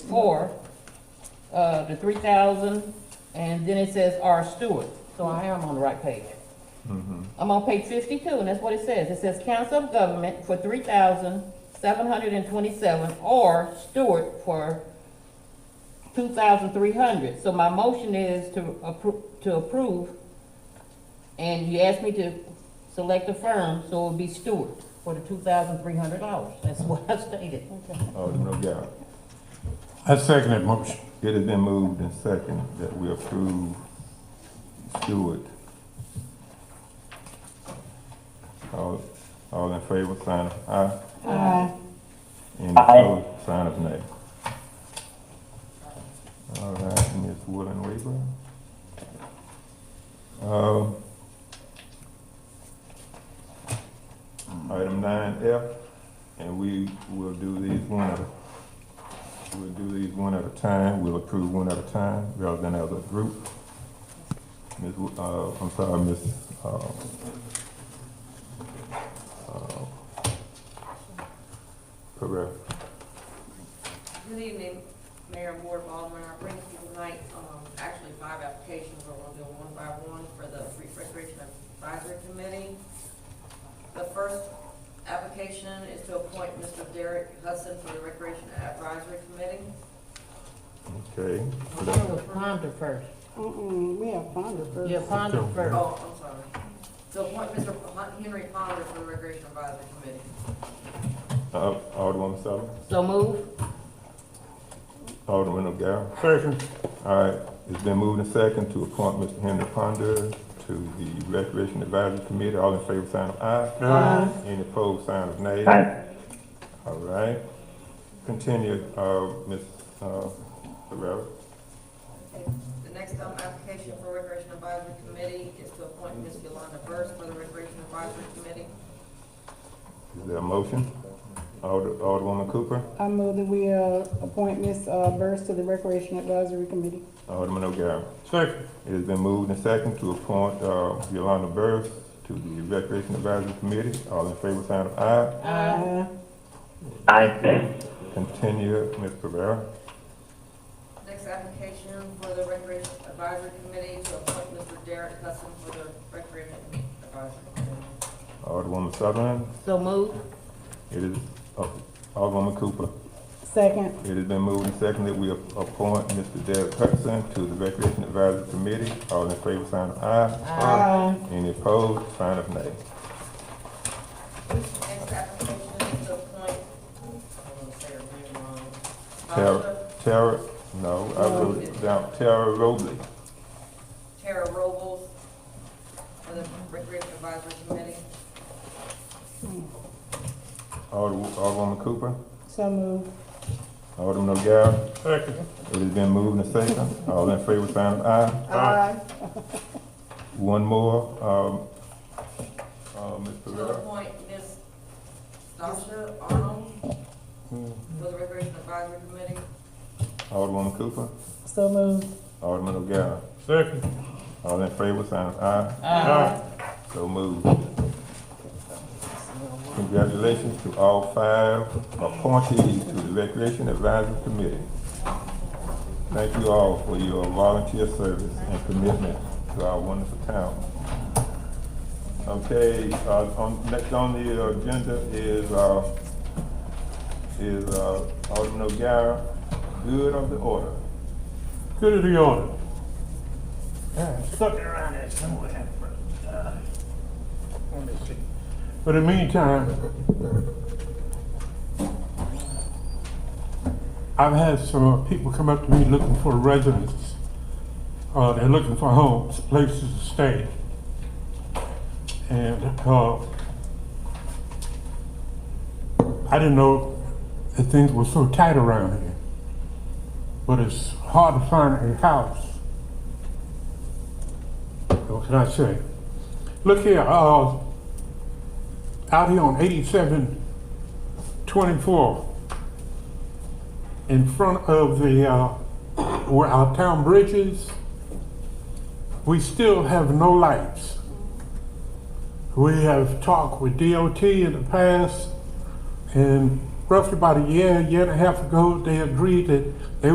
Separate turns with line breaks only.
or, uh, the three thousand, and then it says R Stewart, so I am on the right page. I'm on page fifty-two, and that's what it says, it says Council of Government for three thousand seven hundred and twenty-seven, or Stewart for two thousand three hundred, so my motion is to appro, to approve, and you asked me to select a firm, so it would be Stewart for the two thousand three hundred dollars, that's what I stated.
Alderman O'Gara.
I second that motion.
It has been moved and seconded that we approve Stewart. All, all in favor, sign of aye.
Aye.
Any opposed, sign of nay. All right, Ms. Woolen Weaver. Um, Item nine F, and we will do these one at a, we'll do these one at a time, we'll approve one at a time rather than as a group. Ms., Wo- uh, I'm sorry, Ms., uh, uh, Pereira.
Good evening, Mayor Ward Baldwin. I bring to you tonight, um, actually five applications. We're gonna do them one by one for the Free Recreation Advisory Committee. The first application is to appoint Mr. Derek Hudson for the Recreation Advisory Committee.
okay.
I'm gonna go Ponder first,
Mm-mm, we have Fonda first.
yeah, Ponder first,
Oh, I'm sorry. To appoint Mr. Hon- Henry Ponder for the Recreation Advisory Committee.
Uh, Alderman Sullivan,
so move,
Alderman O'Gara.
Second.
All right, it's been moved and second to appoint Mr. Henry Ponder to the Recreation Advisory Committee. All in favor, sign of aye.
Aye.
Any opposed, sign of nay.
Aye.
All right. Continue, uh, Ms. uh, Ferrera.
The next um, application for Recreation Advisory Committee is to appoint Ms. Yolanda Burst for the Recreation Advisory Committee.
Is there a motion? Alder- Alderwoman Cooper,
I move that we, uh, appoint Ms. uh, Burris to the Recreation Advisory Committee.
Alderman O'Gara.
Second.
It has been moved and second to appoint uh, Yolanda Burris to the Recreation Advisory Committee. All in favor, sign of aye.
Aye.
Aye.
Continue, Ms. Ferrera.
Next application for the Recreation Advisory Committee to appoint Mr. Derek Hudson for the Recreation Advisory Committee.
Alderwoman Sutherland.
so move,
It is, uh, Alderwoman Cooper.
Second,
It has been moved and seconded, we ap- appoint Mr. Derek Hudson to the Recreation Advisory Committee. All in favor, sign of aye. Aye. Any opposed, sign of nay.
Next application is to appoint, I'm gonna say her name wrong.
Tara,
Barbara
Tara, no, I wrote it down, Tara Robley.
Tara Robles for the Recreation Advisory Committee.
Ald- Alderwoman Cooper,
so move.
Alderman O'Gara.
Second.
It has been moved and seconded, all in favor, sign of aye.
Aye.
One more, um, uh, Ms.
To
Pereira.
appoint Ms. Sasha Arnold for the Recreation Advisory Committee.
Alderwoman Cooper,
So move.
Alderman O'Gara.
Second.
All in favor, sign of aye.
Aye.
So moved. Congratulations to all five appointees to the Recreation Advisory Committee. Thank you all for your volunteer service and commitment to our wonderful town. Okay, uh, on, next on the agenda is, uh, is, uh, Alderman O'Gara, good of the order.
Good of the order.
Stuck around there somewhere. Uh, Let me see.
But in the meantime, I've had some uh, people come up to me looking for residents. Uh, they're looking for homes, places to stay. And, uh, I didn't know that things were so tight around here. But it's hard to find a house. What can I say? Look here, uh, out here on 8724 in front of the uh, where our town bridge is we still have no lights we have talked with dot in the past and roughly about a year year and a half ago they agreed that